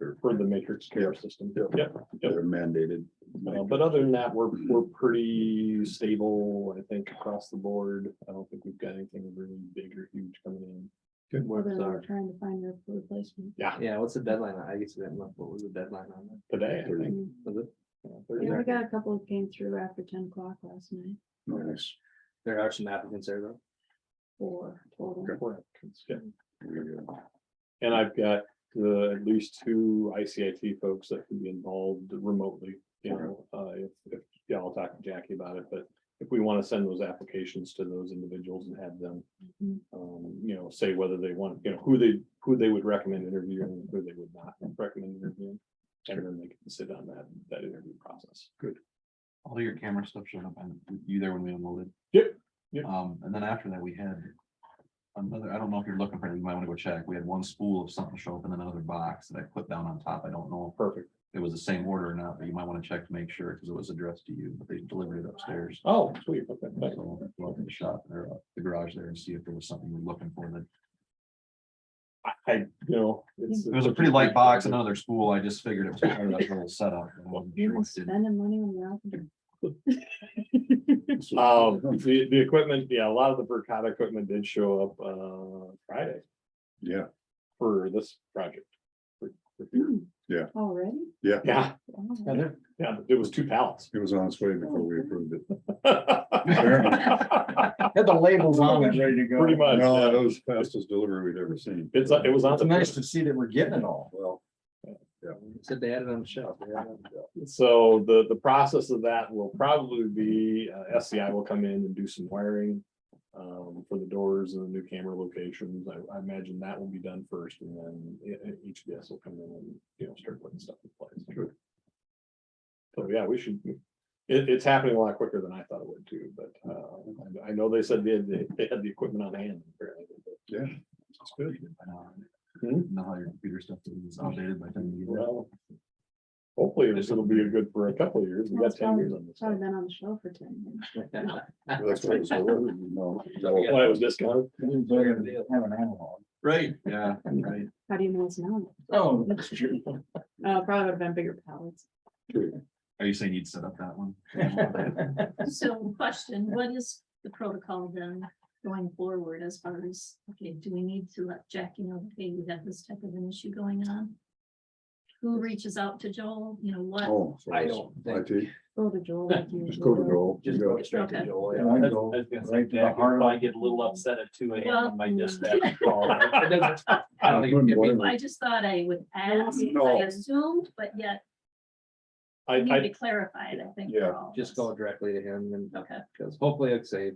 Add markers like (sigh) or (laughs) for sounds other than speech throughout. or for the matrix care system. Yeah. Yep. Yep. they're mandated. Uh, But other than that, we're, we're pretty stable, I think, across the board. I don't think we've got anything really big or huge coming in. Good. Where Then it's we're our- trying to find a replacement. Yeah, what's the deadline? I guess that month, what was the deadline on that? Today, I think. Mm. Was it- Yeah, Yeah, we Thursday. got a couple that came through after ten o'clock last night, Nice. There are some applicants there though. four total. Correct. Yeah. Very good. And I've got uh, at least two ICIT folks that can be involved remotely, you know, uh, if, if, yeah, I'll talk to Jackie about it, but if we want to send those applications to those individuals and have them, Mhm. um, you know, say whether they want, you know, who they, who they would recommend interviewing, and who they would not recommend interviewing. And then they can sit on that, that interview process. all your camera stuff showed up and you there when we unloaded. Yep, yep. Um, and then after that, we had another, I don't know if you're looking for it, you might want to go check. We had one spool of something show up in another box that I put down on top. I don't know Perfect. if it was the same order or not, but you might want to check to make sure because it was addressed to you, but they delivered it upstairs. Oh, sweet. Okay, thanks. So go up in the shop or up the garage there and see if there was something you're looking for. That I, I, you know. it's- It was a pretty light box, another spool. I just figured it was part of that whole setup. I wasn't You're sure not what did- spending money on the. So- (laughs) Um, the, the equipment, yeah, a lot of the Vercata equipment did show up, uh, Friday Yeah, for this project. For- for- Hmm, Yeah. Already? Yeah, Wow. yeah, it was two pallets. it was on its way before we approved it. Pretty Had the labels on it. ready to go. much. No, yeah. that was the fastest delivery we'd ever seen. (laughs) It's, uh, it was on. It's the nice to see that we're getting it all. Well, Said they had it on the shelf. they had it on the shelf. So the, the process of that will probably be, uh, SCI will come in and do some wiring. Um, for the doors and the new camera locations, I, I imagine that will be done first and then e- e- each of us will come in and, you know, start putting stuff in place. Sure. So, yeah, we should, it, it's happening a lot quicker than I thought it would too, but, uh, I- I know they said they, had the- they had the equipment on hand. apparently, but, yeah, It's good. I know. Hmm? Know how your computer stuff is outdated by the time you get it. Well, hopefully this will be a good for a couple of years. We got That's ten years on this. Probably stuff. been on the shelf for ten years. (laughs) that's what it was ordered, you know. Yeah. Why it was discounted? Better to Have an analog. Right, yeah, right. How do you know it's not? Oh, (laughs) that's true. Uh, probably would have been bigger pallets. Are you saying you'd set up that one? (laughs) So question, what is the protocol then going forward as far as, okay, do we need to let Jackie know, hey, we have this type of an issue going on? Who reaches out to Joel, you know, what? Oh, so I it's don't think- IT, Go to Joel. like just go to usual. go. Just go straight to Okay. Joel. Yeah, I yeah. go was gonna say, right to the Jack would heart of probably it. get a little upset at two AM Well- (laughs) on my Mm. dispatch call. It doesn't- I don't think Wouldn't it'd be- blame her. I just thought I would ask, I No. assumed, but yet I, we need (laughs) I, to clarify it, I think. for Yeah, all of Just us. go directly to him and Okay, Because hopefully, like I say,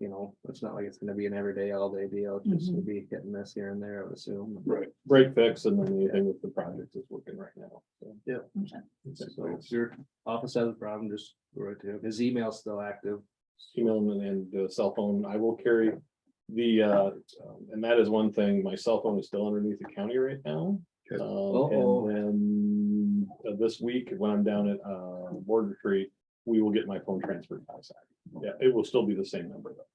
you know, it's not like it's gonna be an everyday, all day deal, it's just Mm-hmm. gonna Mhm. be hitting this here and there, I would assume. Right. break fix and then anything with the project is working right now. so. okay. So if your office has a problem, just go right to him. His email's still active. Email and- and uh, cell phone, I will carry the, uh, um, and that is one thing, my cell phone is still underneath the county right now. Okay. Um, Uh-oh. And then uh, this week, when I'm down at uh, board retreat, we will get my phone transferred outside. Yeah, it will still be the same number though.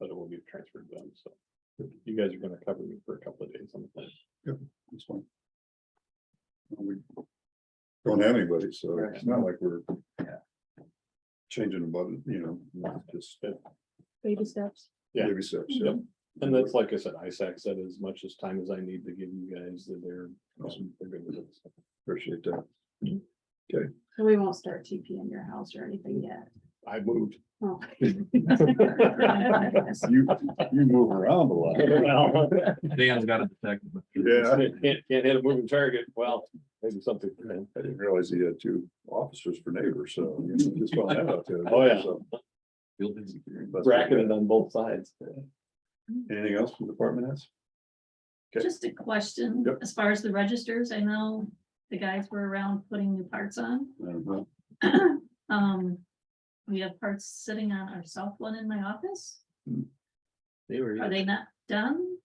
But it will be transferred to them, so you guys are gonna cover me for a couple of days on the plan. That's fine. We Don't have anybody, so it's not like we're Yeah. changing the button, you know, just Baby steps. Yeah. baby steps. yeah. Yep. And that's like I said, ISAC said as much as time as I need to give you guys that they're. Awesome. they're good with it. Appreciate that. So we won't start TP in your house or anything yet. I moved. Oh. (laughs) You, you (laughs) move around a lot. Well, Dan's got a detective. Yeah, I Can't, can't hit a moving target. Well, maybe something. didn't realize he had two officers for neighbors, so. you know, just found that out today, (laughs) Oh, yeah. so. Field visit. That's Bracketed on both sides. Anything else from department heads? Okay. Just a question, Yep. as far as the registers, I know the guys were around putting new parts on. I don't know. Um, we have parts sitting on our south one in my office. They were, Are they not done?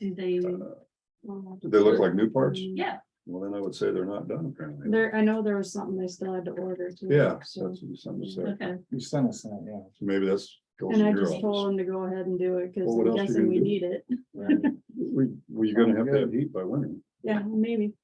Do they, Uh, Do they look like new parts? yeah, Well, then I would say they're not done apparently. There, I know there was something they still had to order too. Yeah, that's So, what you sent us there. okay, You sent us that, yeah. So Maybe that's. goes and to I your just told office. them to go ahead and do it because Well, what I'm else you guessing gonna (laughs) we do? need it. We, we're gonna have to have heat by winter. Yeah, maybe.